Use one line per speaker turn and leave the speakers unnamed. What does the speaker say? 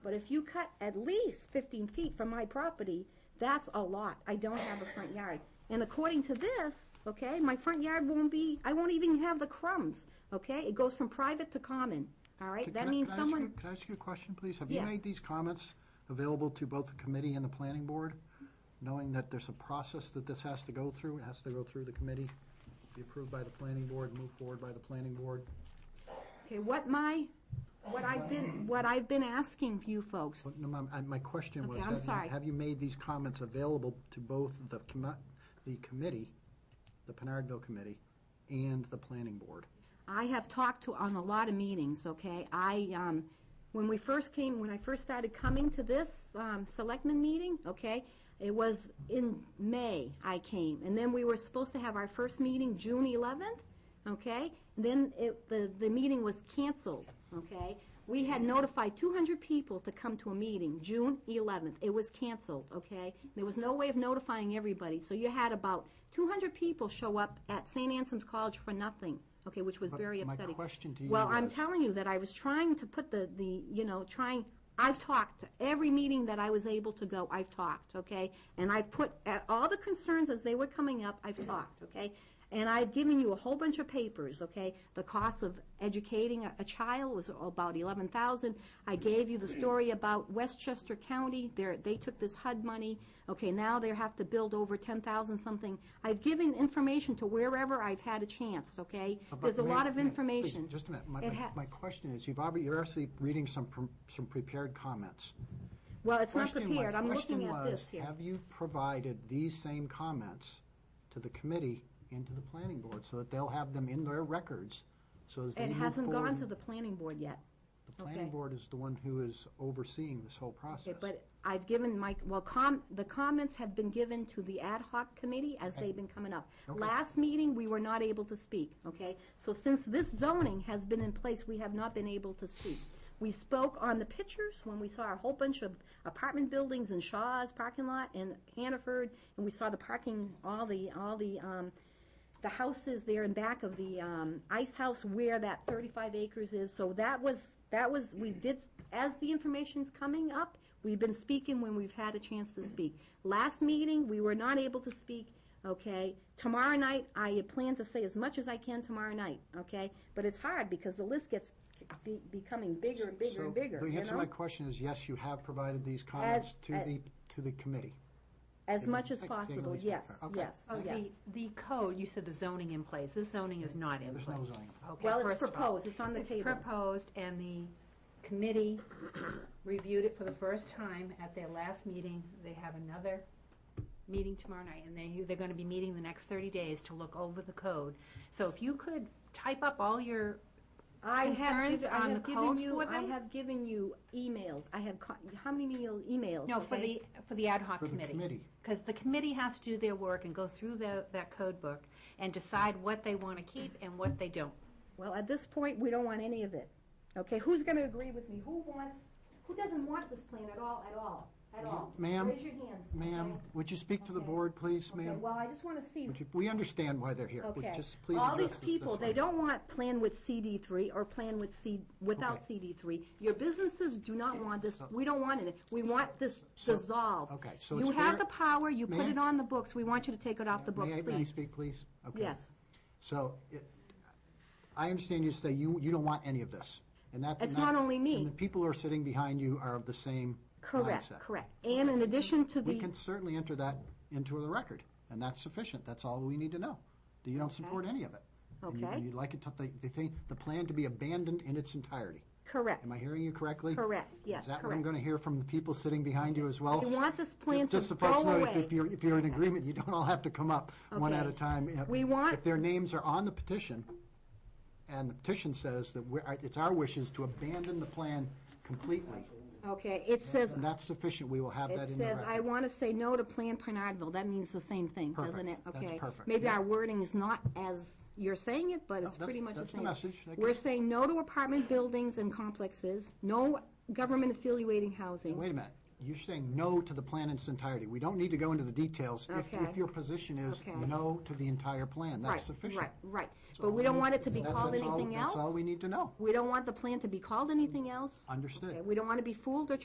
but if you cut at least fifteen feet from my property, that's a lot. I don't have a front yard. And according to this, okay, my front yard won't be, I won't even have the crumbs, okay? It goes from private to common, all right?
Can-
That
can I-
means
can I ask
someone.
you- Can I ask you a question, please? Have you
Yes.
made these comments available to both the committee and the planning board, knowing that there's a process that this has to go through? It has to go through the committee, be approved by the planning board, move forward by the planning board?
Okay, what my, what I've been, what I've been asking you folks,
But no, my, I- my question was,
Okay, I'm
have you-
sorry.
have you made these comments available to both the commi- the committee, the Pinardville committee, and the planning board?
I have talked to on a lot of meetings, okay? I, um, when we first came, when I first started coming to this, um, selectmen meeting, okay? It was in May I came, and then we were supposed to have our first meeting June eleventh, okay? Then it, the, the meeting was canceled, okay? We had notified two hundred people to come to a meeting, June eleventh. It was canceled, okay? There was no way of notifying everybody, so you had about two hundred people show up at St. Anselm's College for nothing, okay, which was
But
very
my
upsetting.
question to you
Well, I'm
was-
telling you that I was trying to put the, the, you know, trying, I've talked, every meeting that I was able to go, I've talked, okay? And I put, at all the concerns as they were coming up, I've talked, okay? And I've given you a whole bunch of papers, okay? The cost of educating a, a child was about eleven thousand. I gave you the story about Westchester County, they they took this HUD money, okay, now they have to build over ten thousand something. I've given information to wherever I've had a chance, okay?
But
There's a
may-
lot of
may- please,
information.
Just a minute. My,
It
my-
ha-
my question is, you've already, you're actually reading some, pre- some prepared comments.
Well, it's not
Question- my
prepared, I'm
question
looking at
was,
this here.
Have you provided these same comments to the committee and to the planning board so that they'll have them in their records? So as they
It
move
hasn't gone
forward,
to the planning board yet.
The planning
okay.
board is the one who is overseeing this whole process.
Okay, eh, but I've given my, well, com, the comments have been given to the ad hoc committee as they've been coming up. Last meeting, we were not able to speak, okay? So since this zoning has been in place, we have not been able to speak. We spoke on the pictures when we saw a whole bunch of apartment buildings in Shaw's parking lot in Hannaford, and we saw the parking, all the, all the, um, the houses there in back of the um, ice house where that 35 acres is. So that was, that was, we did, as the information's coming up, we've been speaking when we've had a chance to speak. Last meeting, we were not able to speak, okay? Tomorrow night, I plan to say as much as I can tomorrow night, okay? But it's hard because the list gets be- becoming bigger and bigger
So
and bigger,
The
you
answer to my
know?
question is, yes, you have provided these comments to
uh,
the, to the committee.
As much as
I- I can at
possible,
least-
yes,
okay.
yes,
Oh,
yes.
the, the code, you said the zoning in place, this zoning is not in
There's
place.
no zoning in place.
Okay,
Well, it's
first of all.
proposed, it's on the
It's
table.
proposed, and the committee reviewed it for the first time at their last meeting. They have another meeting tomorrow night, and they, they're gonna be meeting the next thirty days to look over the code. So if you could type up all your,
I have,
concerns
given- I
on
have
the
given
code
you,
for
I
them?
have given you emails, I have, co- how many meal- emails?
no, for
okay?
the, for the ad hoc
For the
committee.
committee.
Because the committee has to do their work and go through the, that code book and decide what they wanna keep and what they don't.
Well, at this point, we don't want any of it, okay? Who's gonna agree with me? Who wants, who doesn't want this plan at all, at all, at all?
Ma'am,
Raise your hands.
Ma'am,
okay?
would you speak to the
Okay.
board, please,
Okay,
ma'am?
well, I just wanna see,
Would you- We understand why they're here. Would
okay.
just please
All
address
these
this- this
people,
way.
they don't want plan with CD three or plan with C, without CD three. Your businesses do not want this, we don't want it, we want this
So-
dissolved.
okay, so
You
it's
have
fair-
the power, you put
Ma'am?
it on the books, we want you to take it off the books,
May I-
please.
May I speak, please? Okay.
Yes.
So, it- I understand you say you, you don't want any of this, and that's...
It's
and that-
not only me.
And the people who are sitting behind you are of the same
Correct,
mindset.
correct. And in addition to
We
the,
can certainly enter that into the record, and that's sufficient, that's all we need to know. That You don't support any of it. And you-
Okay.
And you'd like it to, the, the thing, the plan to be abandoned in its entirety.
correct.
Am I hearing you correctly?
Correct, yes,
Is that what I'm
correct.
going to hear from the people sitting behind you as well?
We want this plan
Just- just
to
so folks
go
know, if-
away.
If you're, if you're in agreement, you don't all have to come up, one at
Okay.
a time. If-
We want-
If their names are on the petition, and the petition says that we're, it's our wishes to abandon the plan completely,
Okay, it says,
and that's sufficient, we will have that
it
in the
says, I
record.
want to say no to Plan Pinardville. That means the same thing, doesn't it?
Perfect. That's
Okay.
perfect.
Maybe
Yeah.
our wording is not as you're saying it, but it's
that's-
pretty much the
that's the
same.
message. That
We're
gets-
saying no to apartment buildings and complexes, no government affiliating housing.
Wait a minute, you're saying no to the plan in its entirety. We don't need to go into the details. If,
Okay.
if your position is
Okay.
no to the entire plan,
Right,
that's sufficient.
Right, right. But we don't want it to be
That-
called
that's all-
anything
That's all
else.
we need to know.
We don't want the plan to be called anything else.
Understood.
Okay, We don't want to be fooled or